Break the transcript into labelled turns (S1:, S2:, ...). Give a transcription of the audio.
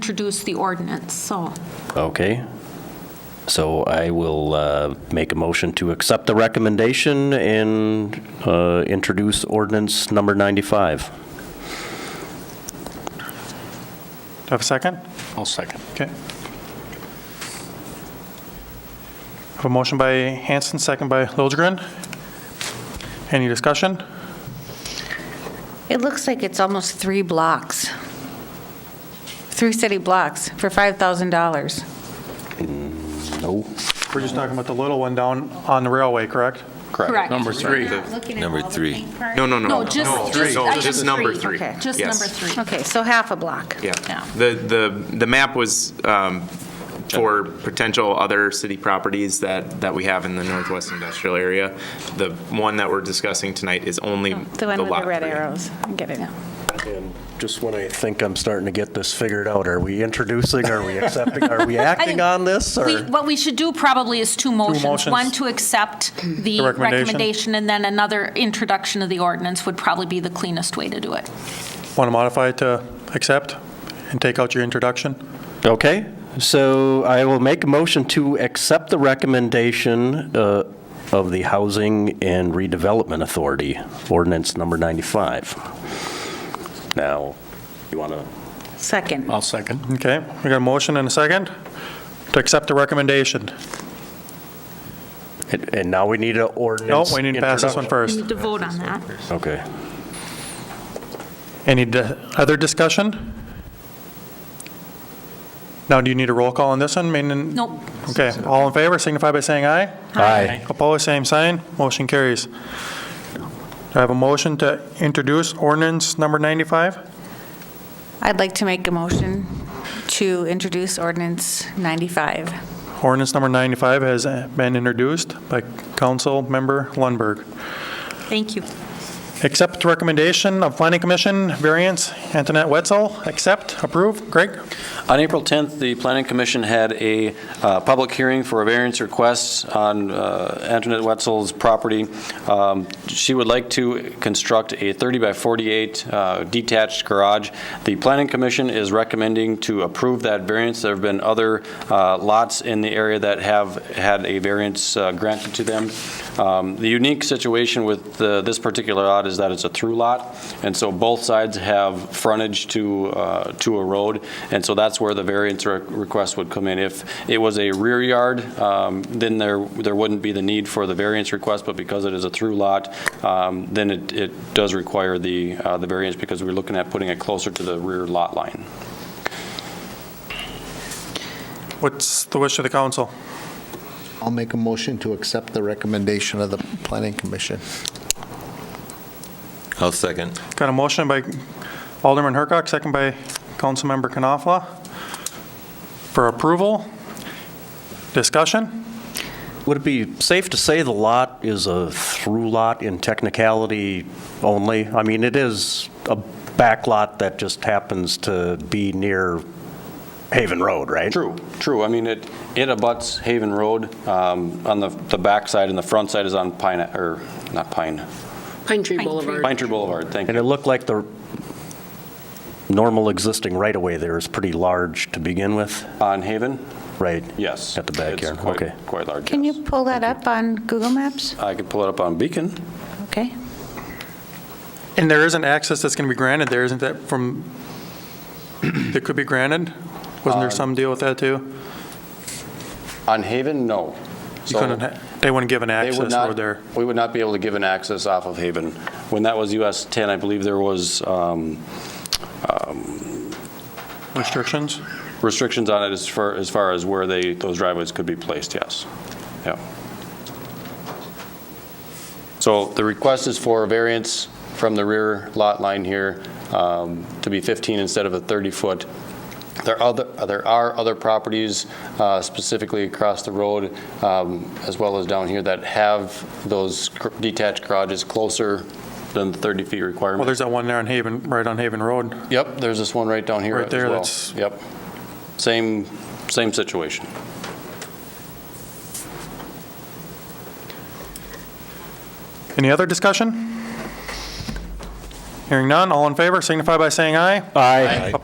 S1: introduce the ordinance, so.
S2: Okay. So I will uh, make a motion to accept the recommendation and uh, introduce ordinance number 95.
S3: Do I have a second?
S4: I'll second.
S3: Okay. Have a motion by Hanson, second by Liljegren. Any discussion?
S5: It looks like it's almost three blocks, three city blocks for $5,000.
S2: No.
S3: We're just talking about the little one down on the railway, correct?
S1: Correct.
S4: Number three.
S6: Number three.
S7: No, no, no.
S1: No, just, just.
S7: No,
S1: item
S7: just number three.
S5: Okay.
S1: Just
S7: Yes.
S1: number three.
S5: Okay, so half a block.
S7: Yeah. The, the, the map was um, for potential other city properties that, that we have in the northwest industrial area. The one that we're discussing tonight is only the lot.
S5: The one with the red
S7: three.
S5: arrows. I get it now.
S2: Just when I think I'm starting to get this figured out, are we introducing, are we accepting, are we acting on this,
S1: We-
S2: or?
S1: What we should do probably is two motions.
S3: motions.
S1: One to accept the
S3: The recommendation.
S1: recommendation, and then another introduction of the ordinance would probably be the cleanest way to do it.
S3: Want to modify it to accept and take out your introduction?
S2: Okay, so I will make a motion to accept the recommendation uh, of the Housing and Redevelopment Authority, ordinance number 95. Now, you want to
S5: Second.
S4: I'll second.
S3: Okay, we got a motion and a second to accept the recommendation.
S2: And and now we need an
S3: No,
S2: ordinance.
S3: we need to pass this one
S2: introduction.
S3: first.
S1: need to vote on that.
S2: Okay.
S3: Any di- other discussion? Now, do you need a roll call on this one? Meaning-
S1: Nope.
S3: Okay, all in favor signify by saying aye.
S2: Aye.
S3: Opposed, same sign. Motion carries. Do I have a motion to introduce ordinance number 95?
S5: I'd like to make a motion to introduce ordinance 95.
S3: Ordinance number 95 has uh, been introduced by Councilmember Lundberg.
S1: Thank you.
S3: Accept recommendation of Planning Commission, variance, Antoinette Wetzel. Accept, approve. Greg?
S8: On April 10th, the Planning Commission had a uh, public hearing for a variance request on uh, Antoinette Wetzel's property. Um, She would like to construct a 30 by 48 uh, detached garage. The Planning Commission is recommending to approve that variance. There have been other uh, lots in the area that have had a variance uh, granted to them. Um, The unique situation with the- this particular lot is that it's a through lot, and so both sides have frontage to, uh, to a road, and so that's where the variance re- request would come in. If it was a rear yard, um, then there, there wouldn't be the need for the variance request, but because it is a through lot, um, then it, it does require the, uh, the variance, because we're looking at putting it closer to the rear lot line.
S3: What's the wish of the council?
S9: I'll make a motion to accept the recommendation of the planning commission.
S6: I'll second.
S3: Got a motion by Alderman Hercock, second by Councilmember Knopfla for approval. Discussion?
S2: Would it be safe to say the lot is a through lot in technicality only? I mean, it is a back lot that just happens to be near Haven Road, right?
S8: True, true. I mean, it, it abuts Haven Road um, on the, the backside, and the front side is on Pine, or, not Pine,
S10: Pine Tree
S1: Pine Tree.
S10: Boulevard.
S8: Pine Tree Boulevard, thank you.
S2: And it looked like the normal existing right-of-way there is pretty large to begin with,
S8: On Haven?
S2: right?
S8: Yes.
S2: At the back
S8: It's
S2: here,
S8: quite-
S2: okay.
S8: Quite large,
S5: Can
S8: yes.
S5: you pull that up on Google Maps?
S8: I could pull it up on Beacon.
S5: Okay.
S3: And there isn't access that's going to be granted there, isn't that from, that could be granted? Wasn't
S8: Uh,
S3: there some deal with that too?
S8: On Haven, no.
S3: You
S8: So
S3: couldn't, ha- they wouldn't give an
S8: they would
S3: access
S8: not-
S3: over there.
S8: We would not be able to give an access off of Haven. When that was US 10, I believe there was um,
S3: Restrictions?
S8: restrictions on it as far, as far as where they, those driveways could be placed, yes. Yeah. So the request is for a variance from the rear lot line here um, to be 15 instead of a 30-foot. There are, other- there are other properties uh, specifically across the road, um, as well as down here, that have those gr- detached garages closer than the 30 feet
S3: Well,
S8: requirement.
S3: there's that one there on Haven, right on Haven Road.
S8: Yep, there's this one right down here
S3: Right
S8: as
S3: there,
S8: well.
S3: that's-
S8: Yep. Same, same situation.
S3: Any other discussion? Hearing none, all in favor signify by saying aye.
S2: Aye.